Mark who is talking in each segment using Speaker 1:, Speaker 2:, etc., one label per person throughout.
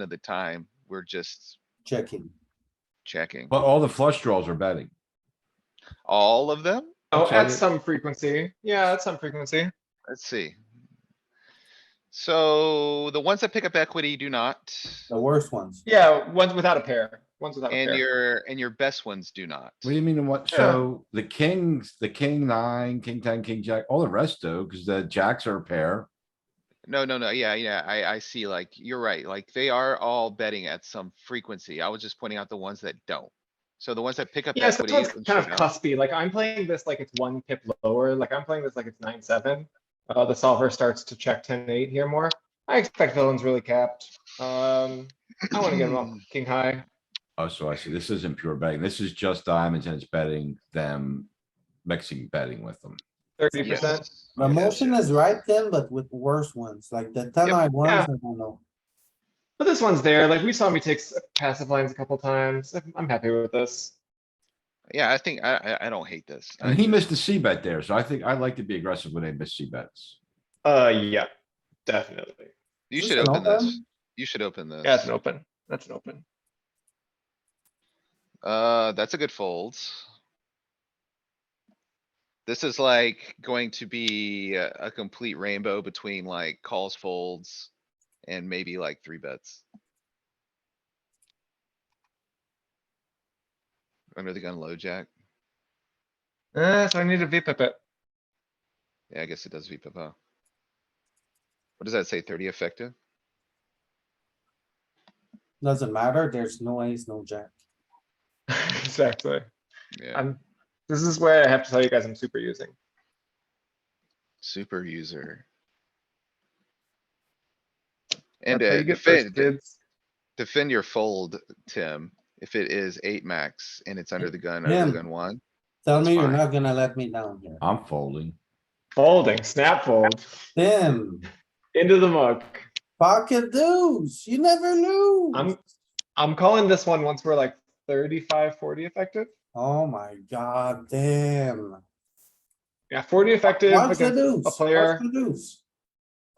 Speaker 1: of the time, we're just
Speaker 2: checking.
Speaker 1: checking.
Speaker 3: But all the flush draws are betting.
Speaker 1: All of them?
Speaker 4: Oh,
Speaker 3: Okay.
Speaker 4: at some frequency. Yeah, at some frequency.
Speaker 1: Let's see. So the ones that pick up equity do not,
Speaker 2: The worst ones.
Speaker 4: Yeah, ones without a pair, ones
Speaker 2: Oh,
Speaker 4: without a
Speaker 1: and
Speaker 4: pair.
Speaker 1: your, and your best ones do not.
Speaker 3: What do you mean and what?
Speaker 4: Yeah.
Speaker 3: So the kings, the king nine, king ten, king jack, all the rest though, because the jacks are a pair.
Speaker 1: No, no, no, yeah, yeah, I, I see, like, you're right, like, they are all betting at some frequency. I was just pointing out the ones that don't. So the ones that pick up
Speaker 4: Yeah,
Speaker 1: equity.
Speaker 4: sometimes
Speaker 1: and
Speaker 4: kind of
Speaker 1: shove out-
Speaker 4: cuspy, like I'm playing this like it's one pip lower, like I'm playing this like it's nine, seven. Uh, the solver starts to check ten, eight here more. I expect villains really capped. Um, I wanna get them off king high.
Speaker 3: Oh, so I see. This isn't pure betting. This is just diamonds and it's betting them, mixing betting with them.
Speaker 4: Thirty
Speaker 1: Yes.
Speaker 4: percent.
Speaker 2: The
Speaker 1: Yes,
Speaker 2: motion
Speaker 1: yes.
Speaker 2: is right then, but with worse ones, like the ten
Speaker 1: Yep.
Speaker 2: I ones,
Speaker 4: Yeah.
Speaker 2: I don't know.
Speaker 4: But this one's there, like we saw me take s- passive lines a couple times. I'm- I'm happy with this.
Speaker 1: Yeah, I think, I, I, I don't hate this. I
Speaker 3: And he missed a C bet there, so I think I like to be aggressive when they miss C bets.
Speaker 4: Uh, yeah, definitely.
Speaker 1: You
Speaker 2: Is
Speaker 1: should
Speaker 2: this an
Speaker 1: open this.
Speaker 2: open?
Speaker 1: You should open this.
Speaker 4: That's an open. That's an open.
Speaker 1: Uh, that's a good fold. This is like going to be a a complete rainbow between like calls, folds, and maybe like three bets. Under the gun low jack.
Speaker 4: Uh, so I need a V pip it.
Speaker 1: Yeah, I guess it does VPIP, huh? What does that say? Thirty effective?
Speaker 2: Doesn't matter, there's no ace, no jack.
Speaker 4: Exactly.
Speaker 1: Yeah,
Speaker 4: I'm, this is where I have to tell you guys I'm super using.
Speaker 1: super user.
Speaker 4: That's
Speaker 1: And
Speaker 4: how
Speaker 1: uh,
Speaker 4: you get first
Speaker 1: defend,
Speaker 4: bids.
Speaker 1: defend your fold, Tim, if it is eight max and it's under the gun, under the
Speaker 2: Tim.
Speaker 1: gun one.
Speaker 2: Tell
Speaker 1: It's
Speaker 2: me you're
Speaker 1: fine.
Speaker 2: not gonna let me down here.
Speaker 3: I'm folding.
Speaker 4: Folding, snap fold,
Speaker 2: Tim,
Speaker 4: into the muck.
Speaker 2: pocket deuce, you never lose.
Speaker 4: I'm, I'm calling this one once we're like 35, 40 effective.
Speaker 2: Oh my god, damn.
Speaker 4: Yeah, forty effective
Speaker 2: What's the
Speaker 4: against
Speaker 2: deuce?
Speaker 4: a
Speaker 2: What's
Speaker 4: player.
Speaker 2: the deuce?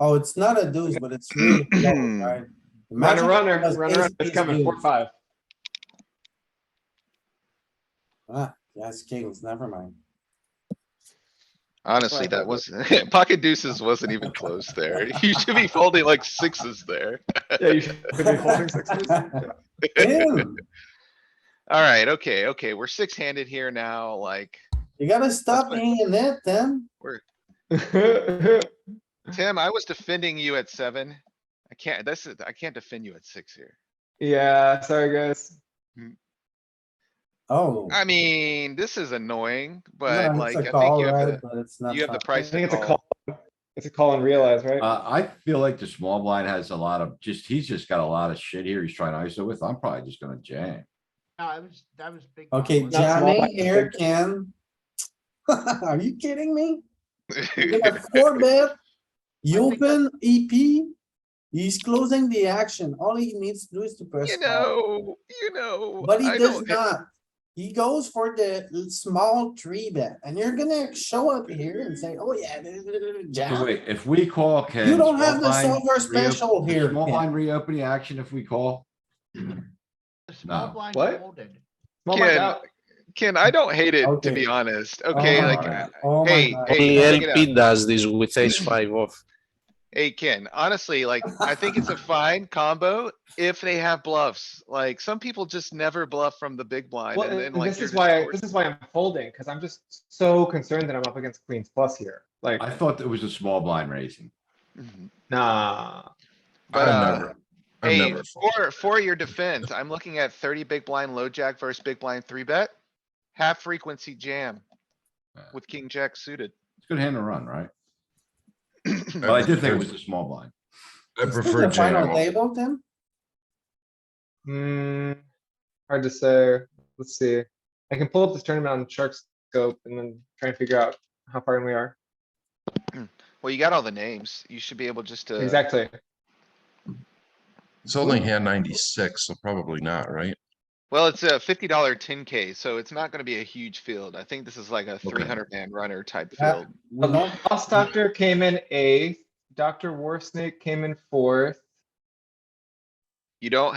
Speaker 2: Oh, it's not a deuce, but it's really close, right? Imagine if
Speaker 4: Runner,
Speaker 2: it
Speaker 4: runner,
Speaker 2: was
Speaker 4: runner, runner,
Speaker 2: ace,
Speaker 4: it's
Speaker 2: ace
Speaker 4: coming, four,
Speaker 2: deuce.
Speaker 4: five.
Speaker 2: Ah, yes, kings, never mind.
Speaker 1: Honestly,
Speaker 4: Right.
Speaker 1: that was, pocket deuces wasn't even close there. You should be folding like sixes there.
Speaker 4: Yeah, you should be folding sixes.
Speaker 2: Tim,
Speaker 1: Alright, okay, okay, we're six handed here now, like,
Speaker 2: you gotta stop
Speaker 1: fine.
Speaker 2: being in it, Tim.
Speaker 1: Tim, I was defending you at seven. I can't, this is, I can't defend you at six here.
Speaker 4: Yeah, sorry, guys.
Speaker 2: Oh.
Speaker 1: I mean, this is annoying,
Speaker 2: No,
Speaker 1: but
Speaker 2: it's
Speaker 1: like,
Speaker 2: a
Speaker 1: I think
Speaker 2: call,
Speaker 1: you have the,
Speaker 2: right? But it's not
Speaker 1: you have the
Speaker 2: fun.
Speaker 4: I
Speaker 1: price
Speaker 4: think
Speaker 1: to
Speaker 4: it's a
Speaker 1: call.
Speaker 4: call. It's a call and realize, right?
Speaker 3: Uh, I feel like the small blind has a lot of just, he's just got a lot of shit here. He's trying to ISO with. I'm probably just gonna jam.
Speaker 5: No, I was, that was big. blind,
Speaker 2: Okay,
Speaker 5: wasn't it?
Speaker 4: Not small,
Speaker 2: Johnny
Speaker 4: but
Speaker 2: here
Speaker 4: big.
Speaker 2: can. Are you kidding me? You got four bet, you
Speaker 5: I think that-
Speaker 2: open EP, he's closing the action. All he needs to do is to press.
Speaker 1: You
Speaker 2: call.
Speaker 1: know, you know.
Speaker 2: But he
Speaker 1: I
Speaker 2: does
Speaker 1: don't-
Speaker 2: not. He goes for the l- small three bet and you're gonna show up here and say, oh yeah.
Speaker 3: So
Speaker 2: jam."
Speaker 3: wait, if we call, can.
Speaker 2: You don't
Speaker 3: small
Speaker 2: have the
Speaker 3: blind
Speaker 2: silver
Speaker 3: reop-
Speaker 2: special here.
Speaker 3: Small
Speaker 2: Ken.
Speaker 3: blind reopening action if we call.
Speaker 5: The small
Speaker 3: No.
Speaker 5: blind
Speaker 4: What?
Speaker 5: folded.
Speaker 4: Small blind
Speaker 1: Ken,
Speaker 4: out.
Speaker 1: Ken, I don't hate it, to
Speaker 2: Okay.
Speaker 1: be honest.
Speaker 2: Oh
Speaker 1: Okay,
Speaker 2: my
Speaker 1: like,
Speaker 2: God.
Speaker 1: uh,
Speaker 2: Oh my
Speaker 1: hey,
Speaker 2: God.
Speaker 1: hey,
Speaker 6: Only
Speaker 1: check it out.
Speaker 6: LP does this with ace five off.
Speaker 1: Hey, Ken, honestly, like, I think it's a fine combo if they have bluffs. Like, some people just never bluff from the big blind
Speaker 4: Well,
Speaker 1: and then
Speaker 4: and
Speaker 1: like.
Speaker 4: this
Speaker 1: you're
Speaker 4: is
Speaker 1: just
Speaker 4: why, I-
Speaker 1: forced-
Speaker 4: this is why I'm folding, because I'm just so concerned that I'm up against queens plus here. Like,
Speaker 3: I thought it was a small blind raising.
Speaker 1: Mhm.
Speaker 4: nah.
Speaker 1: But,
Speaker 3: I've
Speaker 1: uh,
Speaker 3: never- I've
Speaker 1: hey,
Speaker 3: never-
Speaker 1: for, for your defense, I'm looking at thirty big blind low jack versus big blind three bet. Half frequency jam with king jack suited.
Speaker 3: It's a good hand to run, right? But I did think it was a small blind.
Speaker 7: I
Speaker 2: Is this
Speaker 7: prefer
Speaker 2: the Final
Speaker 7: jam.
Speaker 2: table, Tim?
Speaker 4: Hmm, hard to say. Let's see. I can pull up this tournament on Shark Scope and then try and figure out how far in we are.
Speaker 1: Well, you got all the names. You should be able just to.
Speaker 4: Exactly.
Speaker 7: It's only hand ninety-six, so probably not, right?
Speaker 1: Well, it's a fifty dollar ten K, so it's not gonna be a huge field. I think this is like a three hundred man runner type
Speaker 2: Yeah.
Speaker 1: field.
Speaker 2: We don't-
Speaker 4: Lost Doctor came in eighth. Dr. War Snake came in fourth.
Speaker 1: You don't